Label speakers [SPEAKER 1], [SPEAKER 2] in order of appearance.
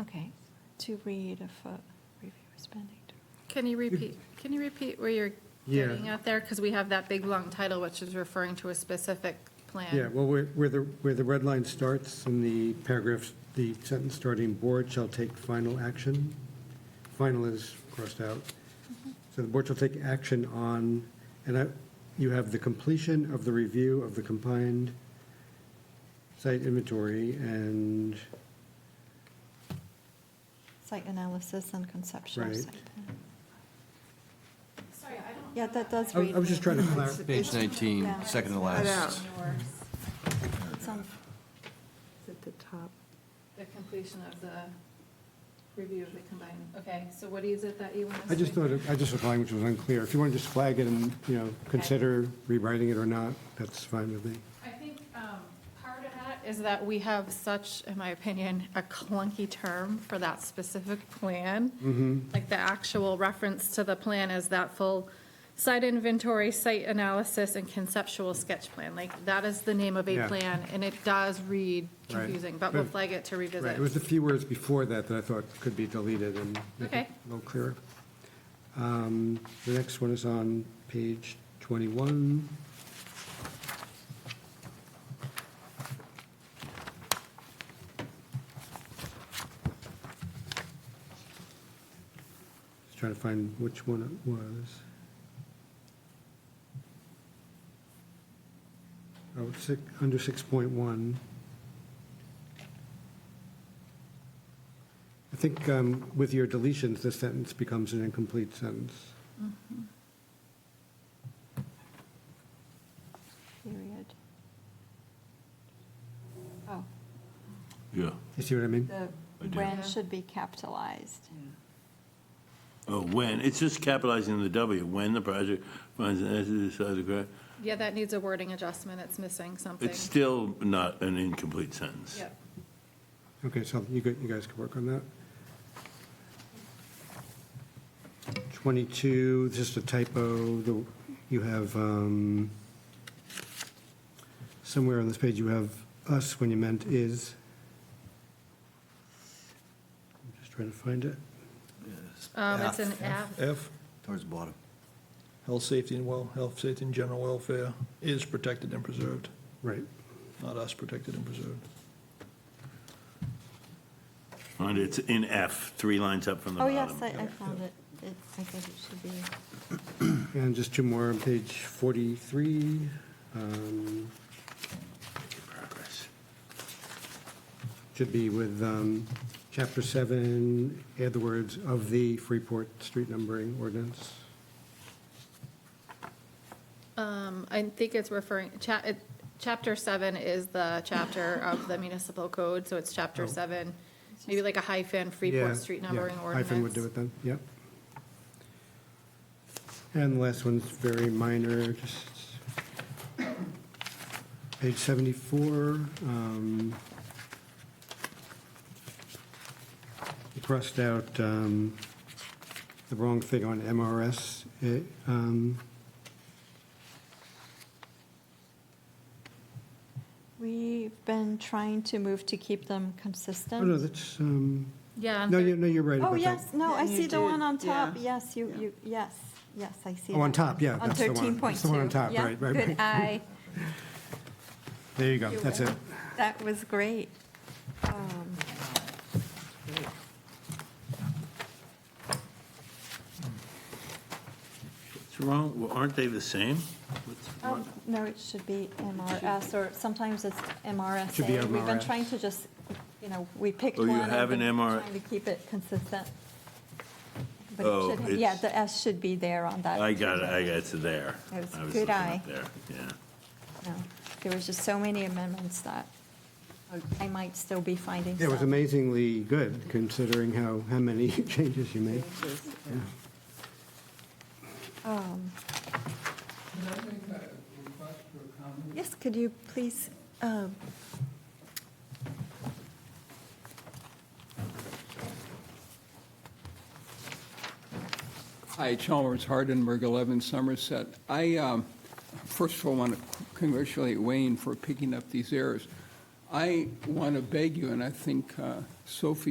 [SPEAKER 1] Okay, to read a foot, review spending.
[SPEAKER 2] Can you repeat, can you repeat where you're
[SPEAKER 3] Yeah.
[SPEAKER 2] getting at there? Because we have that big, long title, which is referring to a specific plan.
[SPEAKER 3] Yeah, well, where where the, where the red line starts in the paragraph, the sentence starting, "Board shall take final action." Final is crossed out. So the board shall take action on, and I, you have the completion of the review of the combined site inventory and,
[SPEAKER 1] Site analysis and conceptual
[SPEAKER 3] Right.
[SPEAKER 1] site plan.
[SPEAKER 2] Sorry, I don't.
[SPEAKER 1] Yeah, that does
[SPEAKER 3] I
[SPEAKER 1] read.
[SPEAKER 3] I was just
[SPEAKER 1] me.
[SPEAKER 3] trying to clarify.
[SPEAKER 4] Page 19,
[SPEAKER 1] Yeah.
[SPEAKER 4] second to last.
[SPEAKER 1] It's on-
[SPEAKER 5] At the top.
[SPEAKER 2] The completion of the review of the combined, okay, so what is it that you want us to?
[SPEAKER 3] I just thought, it- I just thought the language was unclear. If you want to just flag it and, you know, consider rewriting it or not, that's fine with me.
[SPEAKER 2] I think um, part of that is that we have such, in my opinion, a clunky term for that specific
[SPEAKER 3] Mm-hmm.
[SPEAKER 2] plan. Like the actual reference to the plan is that full site inventory, site analysis, and conceptual sketch plan. Like, that is the name of a
[SPEAKER 3] Yeah.
[SPEAKER 2] plan, and it does read
[SPEAKER 3] Right.
[SPEAKER 2] confusing, but we'll
[SPEAKER 3] But-
[SPEAKER 2] flag it to
[SPEAKER 3] Right, it was
[SPEAKER 2] revisit.
[SPEAKER 3] the few words before that that I thought could be deleted and make it
[SPEAKER 2] Okay.
[SPEAKER 3] a little clearer. Um, The next one is on page 21. Just trying to find which one it was. Oh, six, under 6.1. I think um, with your deletions, the sentence becomes an incomplete sentence.
[SPEAKER 1] Period. Oh,
[SPEAKER 4] Yeah.
[SPEAKER 3] You see what I mean?
[SPEAKER 1] the
[SPEAKER 4] I do.
[SPEAKER 1] when should be capitalized.
[SPEAKER 6] Oh, when, it's just capitalizing the W, when the project finds an entity size of grant.
[SPEAKER 2] Yeah, that needs a wording adjustment, it's missing something.
[SPEAKER 6] It's still not an incomplete sentence.
[SPEAKER 2] Yep.
[SPEAKER 3] Okay, so you gu- you guys can work on that. 22, just a typo, the- you have, um, somewhere on this page, you have us when you meant is. I'm just trying to find it.
[SPEAKER 2] Um, It's an F.
[SPEAKER 7] F,
[SPEAKER 4] Towards the bottom.
[SPEAKER 7] health, safety, and well, health, safety, and general welfare is protected and preserved,
[SPEAKER 3] Right.
[SPEAKER 7] not us protected and preserved.
[SPEAKER 6] And it's in F, three lines up from the
[SPEAKER 1] Oh,
[SPEAKER 6] bottom.
[SPEAKER 1] yes, I, I found it. It, I think it should be,
[SPEAKER 3] And just two more on page 43. um,
[SPEAKER 6] Progress.
[SPEAKER 3] Should be with um, Chapter 7, add the words "of the Freeport Street numbering ordinance."
[SPEAKER 2] Um, I think it's referring, cha- it- chapter seven is the chapter of the municipal code, so it's chapter seven, maybe like a hyphen,
[SPEAKER 3] Oh. Yeah,
[SPEAKER 2] Freeport Street
[SPEAKER 3] yeah,
[SPEAKER 2] numbering
[SPEAKER 3] Hyphen would do
[SPEAKER 2] ordinance.
[SPEAKER 3] it then, yep. And the last one's very minor, just page 74. um, we Crossed out um, the wrong thing on MRS. eh, um,
[SPEAKER 1] we've been trying to move to keep them consistent.
[SPEAKER 3] Oh, no, that's, um,
[SPEAKER 2] Yeah, and
[SPEAKER 3] no, you-
[SPEAKER 2] thir-
[SPEAKER 3] no, you're right about
[SPEAKER 1] Oh,
[SPEAKER 3] that.
[SPEAKER 1] yes, no, I
[SPEAKER 5] Yeah, you
[SPEAKER 1] see the one
[SPEAKER 5] did,
[SPEAKER 1] on top,
[SPEAKER 5] yeah.
[SPEAKER 1] yes, you,
[SPEAKER 5] Yeah.
[SPEAKER 1] you, yes, yes, I see.
[SPEAKER 3] Oh, on
[SPEAKER 1] that
[SPEAKER 3] top,
[SPEAKER 1] one.
[SPEAKER 3] yeah,
[SPEAKER 1] On
[SPEAKER 3] that's the one.
[SPEAKER 1] thirteen point two.
[SPEAKER 3] That's the one on top, right, right,
[SPEAKER 1] Good
[SPEAKER 3] right.
[SPEAKER 1] eye,
[SPEAKER 3] There you go, that's it.
[SPEAKER 1] that was great. Um,
[SPEAKER 6] What's wrong, Well, aren't they the same? What's
[SPEAKER 1] um,
[SPEAKER 6] wrong?
[SPEAKER 1] No, it should be MRS, or sometimes it's MRSA.
[SPEAKER 3] Should be
[SPEAKER 1] We've been
[SPEAKER 3] MRS.
[SPEAKER 1] trying to just, you know, we picked
[SPEAKER 6] Oh,
[SPEAKER 1] one.
[SPEAKER 6] you
[SPEAKER 1] and
[SPEAKER 6] have an
[SPEAKER 1] been
[SPEAKER 6] MR
[SPEAKER 1] Trying to keep it consistent. But it
[SPEAKER 6] Oh,
[SPEAKER 1] should ha- Yeah,
[SPEAKER 6] it's-
[SPEAKER 1] the S should be there on that.
[SPEAKER 6] I got it, I got it, it's there.
[SPEAKER 1] That was
[SPEAKER 6] I was
[SPEAKER 1] good
[SPEAKER 6] looking up
[SPEAKER 1] eye.
[SPEAKER 6] There, yeah.
[SPEAKER 1] No, There was just so many amendments that
[SPEAKER 6] Oh.
[SPEAKER 1] I might still be finding
[SPEAKER 3] It was
[SPEAKER 1] some.
[SPEAKER 3] amazingly good, considering how, how many changes you made.
[SPEAKER 1] Um, Yes, could you please, um,
[SPEAKER 8] Hi, Chalmers Hardenberg, 11 Somerset. I, um, first of all, want to congratulate Wayne for picking up these errors. I want to beg you, and I think uh, Sophie